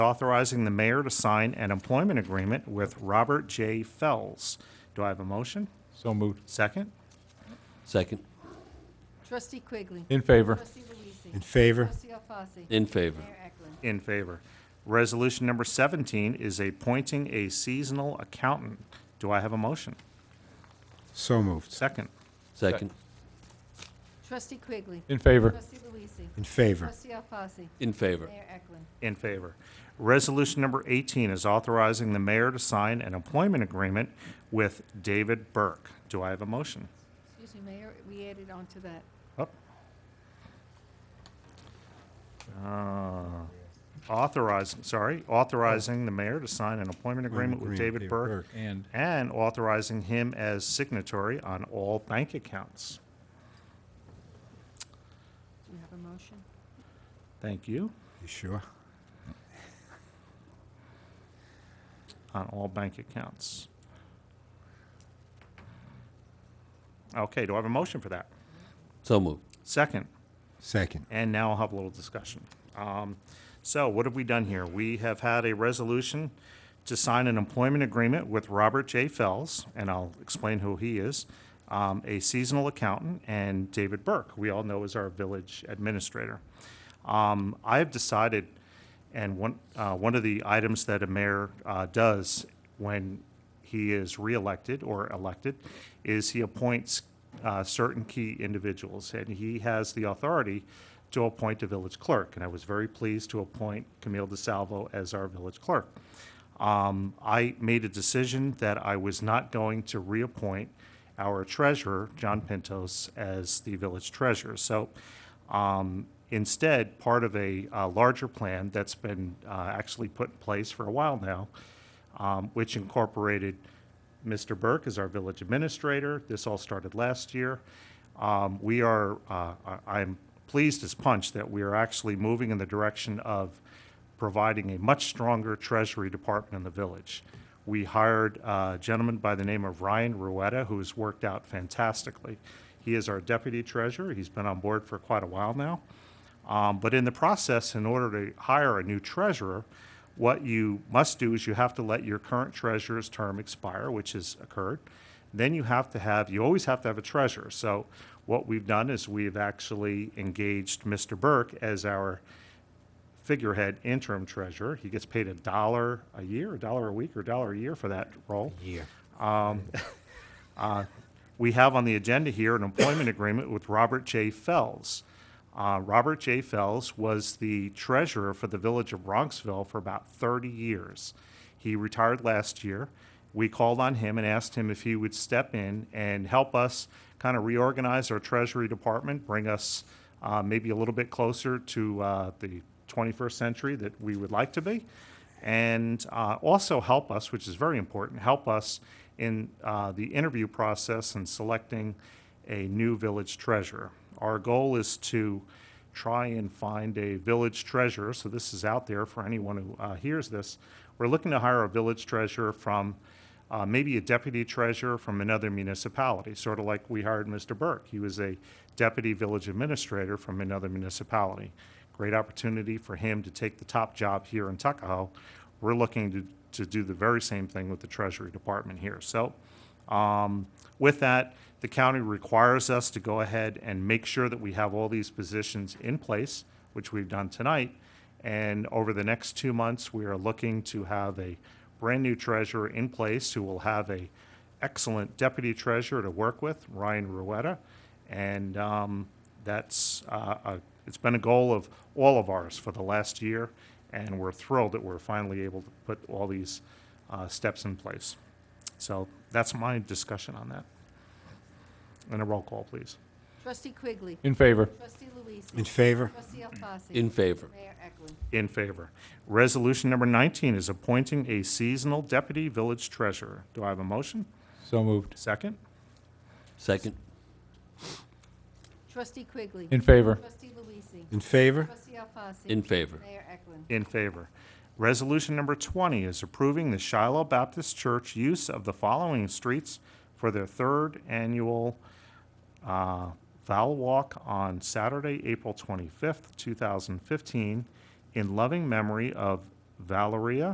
authorizing the mayor to sign an employment agreement with Robert J. Fells. Do I have a motion? So moved. Second? Second. Trustee Quigley. In favor. Trustee Luisee. In favor? Trustee Alfasi. In favor. Mayor Eklund. In favor. Resolution number 17 is appointing a seasonal accountant. Do I have a motion? So moved. Second? Second. Trustee Quigley. In favor. Trustee Luisee. In favor? Trustee Alfasi. In favor. Mayor Eklund. In favor. Resolution number 18 is authorizing the mayor to sign an employment agreement with David Burke. Do I have a motion? Excuse me, Mayor, we added on to that. Up. Uh, Authorizing, sorry, authorizing the mayor to sign an employment agreement with David Burke And and authorizing him as signatory on all bank accounts. Do you have a motion? Thank you. You sure? on all bank accounts. Okay, do I have a motion for that? So moved. Second, Second. and now I'll have a little discussion. Um, So what have we done here? We have had a resolution to sign an employment agreement with Robert J. Fells, and I'll explain who he is, um, a seasonal accountant, and David Burke, we all know is our village administrator. Um, I have decided, and one, uh, one of the items that a mayor uh, does when he is reelected or elected is he appoints uh, certain key individuals, and he has the authority to appoint a village clerk. And I was very pleased to appoint Camille DeSalvo as our village clerk. Um, I made a decision that I was not going to reappoint our treasurer, John Pintos, as the village treasurer. So um, Instead, part of a uh, larger plan that's been uh, actually put in place for a while now, um, which incorporated Mr. Burke as our village administrator. This all started last year. Um, We are, uh, I- I'm pleased as punch that we are actually moving in the direction of providing a much stronger Treasury Department in the village. We hired uh, a gentleman by the name of Ryan Ruetta, who has worked out fantastically. He is our deputy treasurer. He's been on board for quite a while now. Um, But in the process, in order to hire a new treasurer, what you must do is you have to let your current treasurer's term expire, which has occurred. Then you have to have, you always have to have a treasurer. So what we've done is we've actually engaged Mr. Burke as our figurehead interim treasurer. He gets paid a dollar a year, a dollar a week, or a dollar a year for that role. Year. We have on the agenda here an employment agreement with Robert J. Fells. Uh, Robert J. Fells was the treasurer for the village of Bronxville for about 30 years. He retired last year. We called on him and asked him if he would step in and help us kind of reorganize our treasury department, bring us uh, maybe a little bit closer to uh, the 21st century that we would like to be, and uh, also help us, which is very important, help us in uh, the interview process and selecting a new village treasurer. Our goal is to try and find a village treasurer, so this is out there for anyone who uh, hears this. We're looking to hire a village treasurer from uh, maybe a deputy treasurer from another municipality, sort of like we hired Mr. Burke. He was a deputy village administrator from another municipality. Great opportunity for him to take the top job here in Tuckahoe. We're looking to, to do the very same thing with the Treasury Department here. So um, With that, the county requires us to go ahead and make sure that we have all these positions in place, which we've done tonight. And over the next two months, we are looking to have a brand-new treasurer in place who will have a excellent deputy treasurer to work with, Ryan Ruetta. And um, that's, uh, a- it's been a goal of all of ours for the last year, and we're thrilled that we're finally able to put all these uh, steps in place. So that's my discussion on that. And a roll call, please. Trustee Quigley. in favor. Trustee Luisee. In favor? Trustee Alfasi. In favor. Mayor Eklund. In favor. Resolution number 19 is appointing a seasonal deputy village treasurer. Do I have a motion? So moved. Second? Second. Trustee Quigley. In favor. Trustee Luisee. In favor? Trustee Alfasi. In favor. Mayor Eklund. In favor. Resolution number 20 is approving the Shiloh Baptist Church use of the following streets for their third annual uh, Val Walk on Saturday, April 25th, 2015, in loving memory of Valeria